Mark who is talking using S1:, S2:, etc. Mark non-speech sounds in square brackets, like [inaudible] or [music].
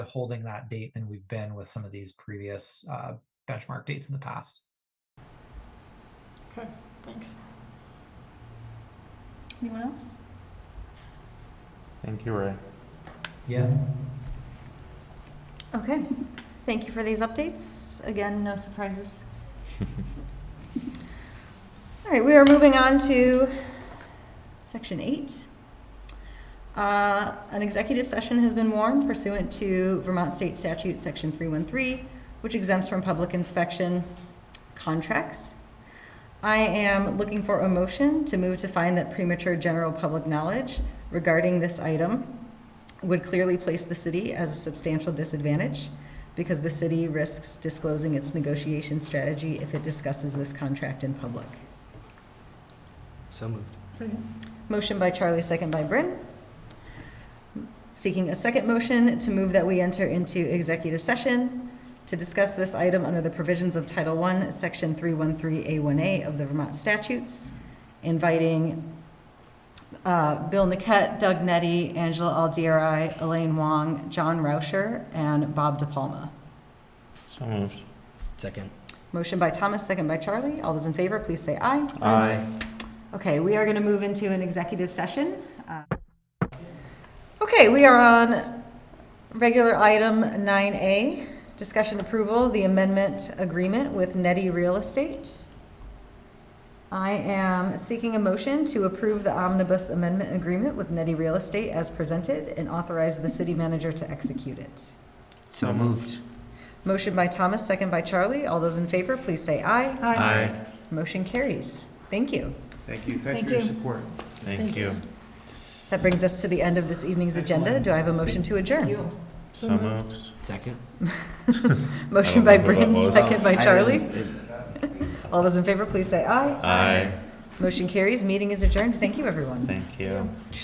S1: holding that date than we've been with some of these previous uh, benchmark dates in the past.
S2: Okay, thanks.
S3: Anyone else?
S4: Thank you, Ray.
S1: Yeah.
S3: Okay, [laughs] thank you for these updates. Again, no [laughs] surprises. All right, we are moving on to section eight. Uh, An executive session has been warned pursuant to Vermont State Statute, Section 313, which exempts from public inspection contracts. I am looking for a motion to move to find that premature general public knowledge regarding this item would clearly place the city as a substantial disadvantage because the city risks disclosing its negotiation strategy if it discusses this contract in public.
S5: So moved.
S2: Second.
S3: Motion by Charlie, second by Bryn. Seeking a second motion to move that we enter into executive session to discuss this item under the provisions of Title I, Section 313A1A of the Vermont statutes, inviting uh, Bill Niket, Doug Nettie, Angela Aldieri, Elaine Wong, John Rauscher, and Bob DePalma.
S4: So moved.
S5: Second.
S3: Motion by Thomas, second by Charlie. All those in favor, please say aye.
S4: Aye.
S3: Okay, we are going to move into an executive session. Uh, Okay, we are on regular item 9A, discussion approval, the amendment agreement with Netty Real Estate. I am seeking a motion to approve the omnibus amendment agreement with Netty Real Estate as presented and authorize the city manager to execute it.
S5: So moved.
S3: Motion by Thomas, second by Charlie. All those in favor, please say aye.
S5: Aye.
S3: Motion carries. Thank you.
S6: Thank you. Thanks
S2: Thank
S6: for your
S2: you.
S6: support.
S4: Thank you.
S3: That brings us to the end of this evening's agenda. Do I have a motion to adjourn?
S4: So moved.
S5: Second.
S3: Motion by
S4: I don't remember
S3: Bryn,
S4: what was.
S3: second by
S5: I
S3: Charlie.
S5: didn't-
S3: All those in favor, please say aye.
S4: Aye.
S3: Motion carries. Meeting is adjourned. Thank you, everyone.
S4: Thank you.